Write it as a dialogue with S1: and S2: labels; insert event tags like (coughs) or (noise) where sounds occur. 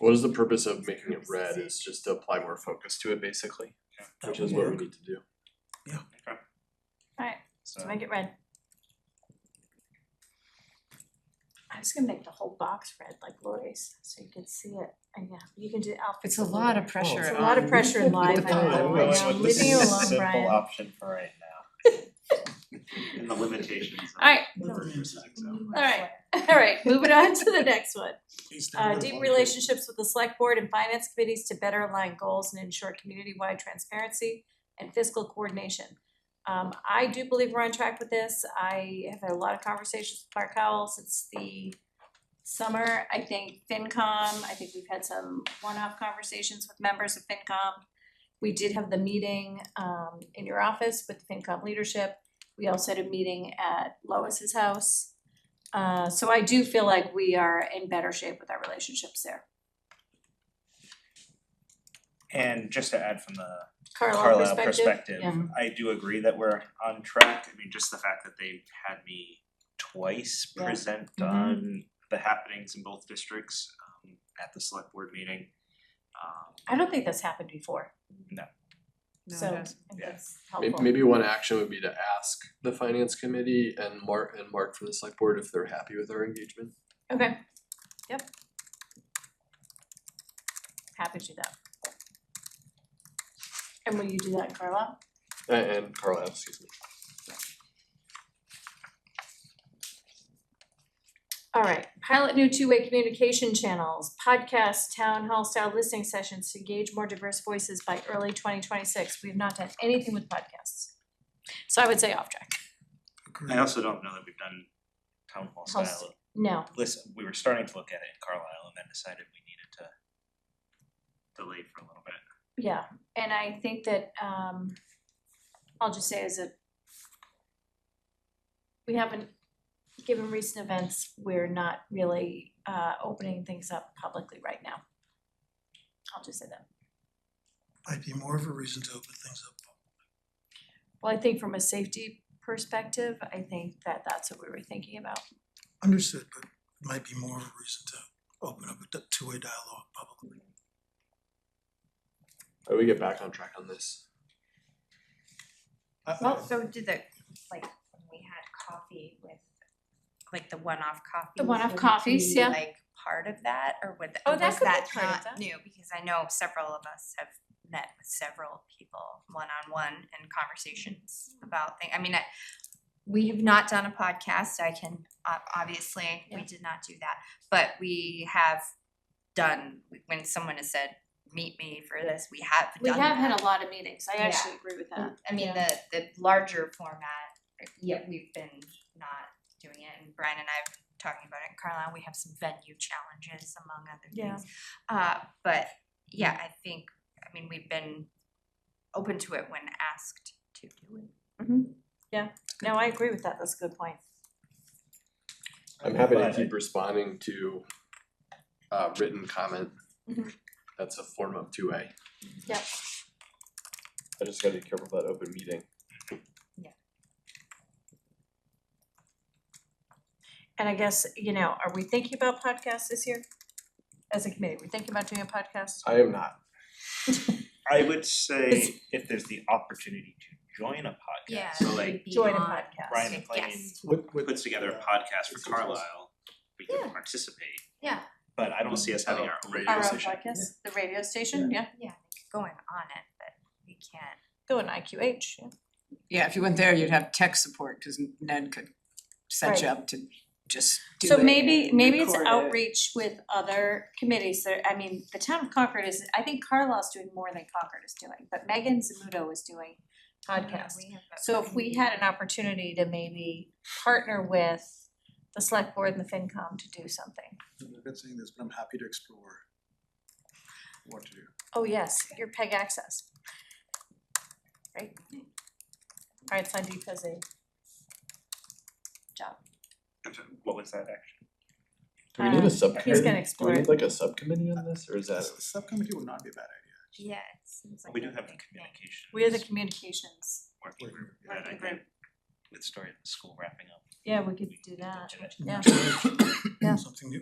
S1: What is the purpose of making it red is just to apply more focus to it basically, which is what we need to do.
S2: So,
S3: Make it red. I was gonna make the whole box red like Lori's, so you could see it, and yeah, you can do
S4: It's
S3: outfits.
S4: a lot of pressure.
S3: It's a lot of
S4: on-
S3: pressure in life,
S4: the
S3: I know,
S4: phone.
S3: I'm
S4: Going
S2: with the
S3: leaving you alone,
S2: simple
S3: Brian.
S2: option for right now. And the limitations. of
S3: Alright.
S2: number versus Excel.
S3: Alright, alright, moving on to the next one. Uh, deep
S5: relationship.
S3: relationships with the select board and finance committees to better align goals and ensure community-wide transparency and fiscal coordination. Um, I do believe we're on track with this. I have had a lot of conversations with Mark Howell since the summer. I think FinCom, I think we've had some one-off conversations with members of FinCom. We did have the meeting, um, in your office with FinCom leadership. We also had a meeting at Lois's house. Uh, so I do feel like we are in better shape with our relationships there.
S2: And just to add from the
S3: Carlisle
S2: Carlisle
S3: perspective,
S2: perspective,
S4: yeah.
S2: I do agree that we're on track. I mean, just the fact that they've had me twice
S3: Yeah.
S2: present
S4: Mhm.
S2: on the happenings in both districts um, at the select board meeting. Um,
S3: I don't think that's happened before,
S4: No, it
S3: so I
S4: doesn't.
S3: think
S2: Yeah.
S3: that's
S1: May-
S3: helpful.
S1: Maybe one action would be to ask the finance committee and Mark and Mark from the select board if they're happy with our engagement.
S3: Okay, yep. Happy to do that. And will you do that, Carlisle?
S1: A- And Carlisle, excuse me.
S3: All right, pilot new two-way communication channels, podcasts, town hall style listening sessions to engage more diverse voices by early twenty twenty-six. We have not done anything with podcasts. So I would say off track.
S2: I also don't know that we've done town hall
S3: Hall
S2: style
S3: No,
S2: listen, we were starting to look at it in Carlisle and then decided we needed to delay for a little bit.
S3: Yeah, and I think that um I'll just say as a we haven't, given recent events, we're not really uh opening things up publicly right now. I'll just say that.
S5: Might be more of a reason to open things up.
S3: Well, I think from a safety perspective, I think that that's what we were thinking about.
S5: Understood, but it might be more of a reason to open up a d- two-way dialogue publicly.
S1: Uh, We get back on track on this.
S6: Well, so did the, like, when we had coffee with, like, the one-off coffees.
S3: one-off
S6: would it
S3: coffees,
S6: be,
S3: yeah.
S6: Like, part of that, or would, th-
S3: Oh, that
S6: was
S3: could be
S6: that
S3: part of that.
S6: not new? Because I know several of us have met with several people one-on-one in conversations about things. I mean, I, we have not done a podcast, I can, ob- obviously, we
S3: Yeah.
S6: did not do that. But we have done, when someone has said, meet me for this, we have done
S3: We have
S6: that.
S3: had a lot of meetings, I
S6: Yeah.
S3: actually agree with that.
S6: I mean, the, the larger format, yeah, we've been not doing it, and Brian and I have been talking about it in Carlisle, we have some venue challenges among other
S3: Yeah.
S6: things. Uh, but, yeah, I think, I mean, we've been open to it when asked to do it.
S3: Mm-hmm. No, I agree with that, that's a good point.
S1: I'm happy to
S2: But-
S1: keep responding to uh written comment. Mm-hmm.
S3: Mhm.
S1: That's a form of two A.
S3: Yep.
S1: I just gotta be careful of that open meeting.
S3: And I guess, you know, are we thinking about podcasts this year? As a committee, we're thinking about doing a podcast?
S1: I am not.
S2: I would say if there's the opportunity to join a podcast, so like
S3: Join a podcast.
S2: Brian
S6: Like
S2: McLean
S6: guest.
S5: What,
S2: puts together a podcast for Carlisle, we can
S6: Yeah.
S2: participate.
S6: Yeah.
S2: But I don't see us having our own radio
S3: Our own
S2: station.
S3: podcast, the radio station, yeah,
S6: Yeah, going on it, but we can't.
S3: go in IQH, yeah.
S4: Yeah, if you went there, you'd have tech support, cause Ned could set you
S3: Right.
S4: up to just do
S3: So
S4: it
S3: maybe,
S4: and
S3: maybe it's
S4: record it.
S3: outreach with other committees that, I mean, the town of Concord is, I think Carlisle's doing more than Concord is doing, but Megan Zamudo is doing podcasts.
S6: We have that
S3: So if we had an opportunity to maybe partner with the select board and the FinCom to do something.
S7: I've been saying this, but I'm happy to explore what to do.
S3: Oh, yes, your PEG access. Right? Alright, Sandeep has a job.
S2: I'm sorry, What was that actually?
S1: Do we need
S3: Uh,
S1: a
S3: he's
S1: subcommittee?
S3: gonna
S1: Do
S3: explore
S1: we
S3: it.
S1: need like a subcommittee on this or is that?
S7: S- Subcommittee would not be a bad idea.
S6: Yeah, it seems like.
S2: We do
S6: a
S2: have a
S6: big thing.
S2: communications
S3: We are the communications.
S2: working group that I
S3: Working
S2: think
S3: group.
S2: with story of the school wrapping up.
S3: Yeah, we could
S2: we
S3: do
S2: can
S3: that.
S2: it.
S5: (coughs)
S3: Yeah. Yeah.
S5: Something new,